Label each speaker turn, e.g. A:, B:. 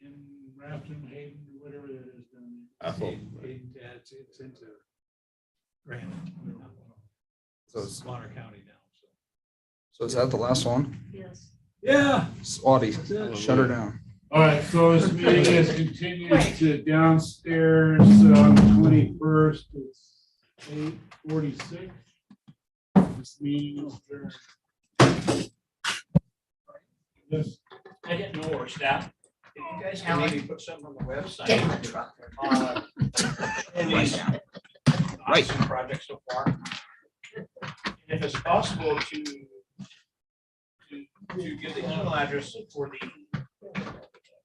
A: Hampton, Hayden, whatever that is down there.
B: Apple.
A: Hayden, Hayden, yeah, it's, it's into Granite.
C: So
A: It's
C: it's-
A: Bonner County now, so.
C: So is that the last one?
D: Yes.
A: Yeah.
C: It's Audi,
A: that's it.
C: shut her down.
A: All right, so this meeting is continued to downstairs on twenty-first, it's eight forty-six. This meeting is adjourned. Yes.
E: I didn't know where staff. If you guys can maybe put something on the website.
D: Get in the truck.
E: on these Awesome project so far. And If it's possible to to to give the email address for the